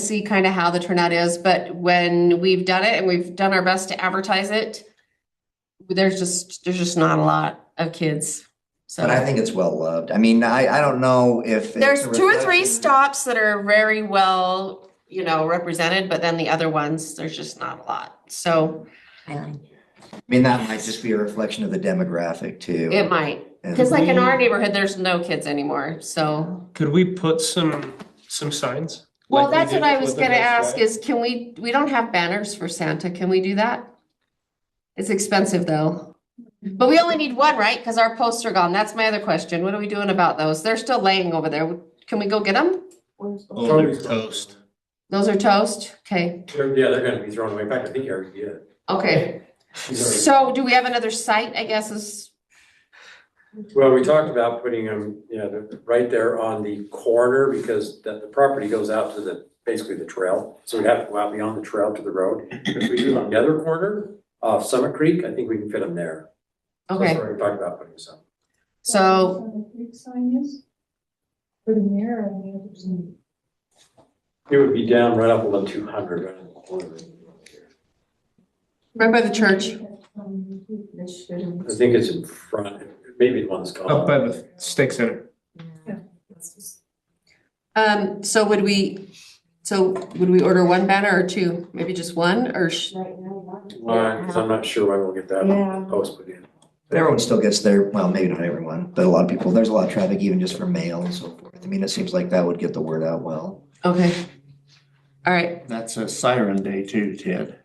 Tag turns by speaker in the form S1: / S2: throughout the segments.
S1: see kind of how the turnout is, but when we've done it and we've done our best to advertise it, there's just, there's just not a lot of kids.
S2: But I
S1: So
S2: think it's well loved. I mean, I, I don't know if. it's
S1: there's
S2: a
S1: two or three
S2: reflection-
S1: stops that are very well, you know, represented, but then the other ones, there's just not a lot. So
S2: I mean, that might just be a reflection of the demographic too.
S1: it might,
S2: And-
S1: because like in our neighborhood, there's no kids anymore, so.
S3: Could we put some, some signs?
S1: Well,
S3: Like we
S1: that's
S3: did
S1: what I
S3: with
S1: was
S3: the
S1: gonna
S3: Mills
S1: ask
S3: Drive?
S1: is can we, we don't have banners for Santa, can we do that? It's expensive though. But we only need one, right? Cause our posts are gone. That's my other question. What are we doing about those? They're still laying over there. Can we go get them?
S4: Oh, they're
S3: Toast.
S1: Those are toast? Okay,
S4: They're- Yeah, they're gonna be thrown away. In fact, I think you already did. it.
S1: okay.
S4: She's
S1: So do we have another site, I guess is,
S4: already- Well, we talked about putting them, you know, they're right there on the corner because the, the property goes out to the, basically the trail. So we'd have to go out beyond the trail to the road. If we do it on the other corner of Summit Creek, I think we can fit them there. That's
S1: okay,
S4: where we talked about putting some.
S1: so,
S5: On the creek sign is? For the mirror and the others in.
S4: It would be down right up below two hundred, right in the corner.
S1: remember the church?
S5: Um, this should-
S4: I think it's in front, maybe the one that's gone.
S3: Up by the steak center.
S1: Um, so would we, so would we order one banner or two? Maybe just one or sh-
S5: Right now.
S4: Why? Cause I'm not sure when we'll get
S5: Yeah.
S4: that post put in.
S2: Everyone still gets their, well, maybe not everyone, but a lot of people, there's a lot of traffic even just for mail and so forth. I mean, it seems like that would get the word out well.
S1: Okay. All right,
S6: That's a siren day too, Ted.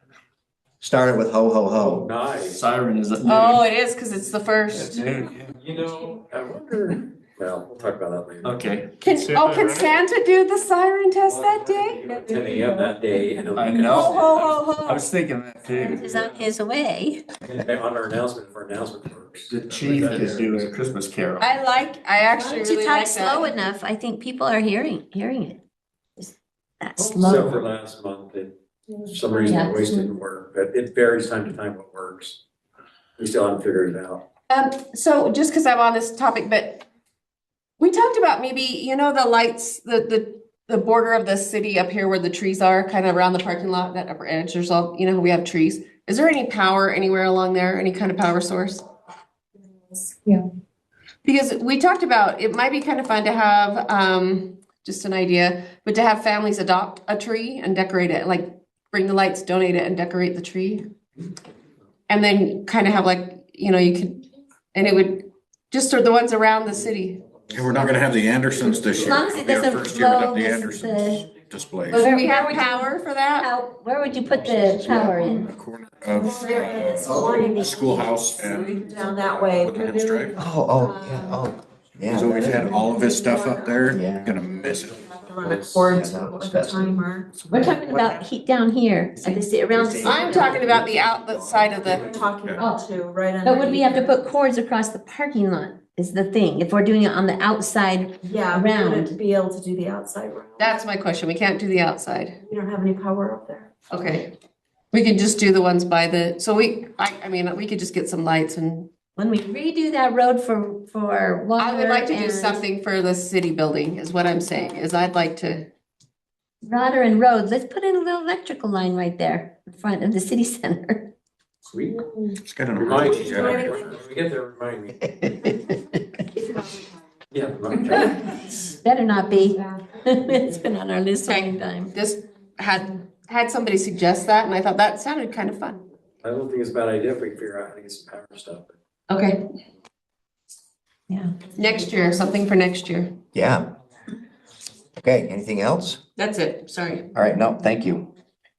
S2: Start it with ho, ho,
S4: Oh,
S2: ho.
S4: nice.
S6: Siren is at noon.
S1: oh, it is, cause it's the first.
S6: At noon.
S4: You know, I wonder, well, we'll talk about that later.
S6: Okay,
S1: Can,
S3: Santa
S1: oh, can
S3: running?
S1: Santa do the siren
S7: Oh,
S1: test that day?
S4: Ten AM that day and. it'll be-
S6: I know.
S1: Ho, ho, ho,
S6: I
S1: ho.
S6: was thinking that too.
S7: is on his way.
S4: On our announcement for announcement first.
S6: The chief is doing a Christmas carol.
S1: I like, I actually
S7: To
S1: really
S7: talk
S1: like
S7: slow
S1: that.
S7: enough, I think people are hearing, hearing it. Just That
S4: Oh, So for
S7: slow.
S4: last month, it, for some reason, the voice didn't work, but it varies time to time what works. We still haven't figured it out.
S1: Um, so just because I'm on this topic, but we talked about maybe, you know, the lights, the, the, the border of the city up here where the trees are, kind of around the parking lot, that upper edge, there's all, you know, we have trees. Is there any power anywhere along there, any kind of power source?
S5: Yeah.
S1: Because we talked about, it might be kind of fun to have, um, just an idea, but to have families adopt a tree and decorate it, like bring the lights, donate it and decorate the tree. And then kind of have like, you know, you could, and it would, just are the ones around the city.
S8: And we're not gonna have the Andersons this
S7: As
S8: year.
S7: long as it
S8: It'll be our
S7: doesn't
S8: first year without
S7: blow
S8: The
S7: this-
S8: Andersons display.
S1: But do we have power for that?
S7: How, where would you put the power in?
S8: The corner of uh, schoolhouse and.
S5: Down that way.
S8: Woodlands Drive.
S2: Oh, oh, yeah,
S1: Um,
S2: oh, yeah.
S8: He's always had all of his stuff up there.
S2: Yeah.
S8: Gonna miss it.
S5: Run a cord
S2: Yeah, that looks
S5: with a
S2: festive.
S5: timer.
S7: We're talking about heat down here, at the ci- around. the
S1: I'm talking about the outlet side of
S5: We're
S1: the,
S5: talking about two, right under.
S7: But would we have to put cords across the parking lot is the thing, if we're doing it on the outside.
S5: Yeah, we
S7: round?
S5: would to be able to do the outside round.
S1: that's my question. We can't do the outside.
S5: We don't have any power up there.
S1: Okay. We could just do the ones by the, so we, I, I mean, we could just get some lights and
S7: When we redo that road for, for water.
S1: I would like to do
S7: and-
S1: something for the city building is what I'm saying, is I'd like to,
S7: Roder and Road, let's put in a little electrical line right there in front of the city center.
S4: Sweet.
S8: It's got an.
S4: Remind me,
S8: orange
S4: Jen,
S8: jacket.
S4: when we get there, remind me. Yeah. remind me.
S7: Better not be. It's been on our list a long time.
S1: this had, had somebody suggest that and I thought that sounded kind of fun.
S4: I don't think it's a bad idea if we figure out how to get some power stuff.
S1: Okay.
S7: Yeah.
S1: Next year, something for next year.
S2: Yeah. Okay, anything else?
S1: That's it, sorry.
S2: All right, no, thank you.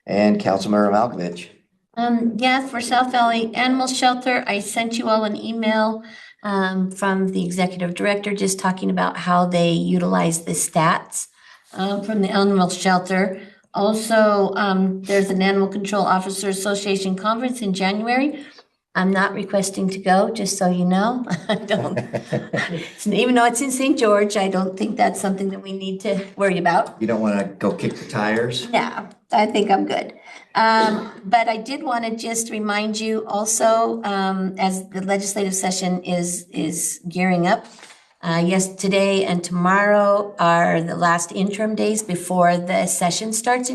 S2: And Councilmember Malkovich.
S7: Um, yeah, for South Valley Animal Shelter, I sent you all an email um, from the executive director just talking about how they utilize the stats um, from the animal shelter. Also, um, there's an Animal Control Officer Association conference in January. I'm not requesting to go, just so you know. I don't, even though it's in St. George, I don't think that's something that we need to worry about.
S2: You don't want to go kick the tires?
S7: Yeah, I think I'm good. Um, but I did want to just remind you also, um, as the legislative session is, is gearing up. Uh, yes, today and tomorrow are the last interim days before the session starts in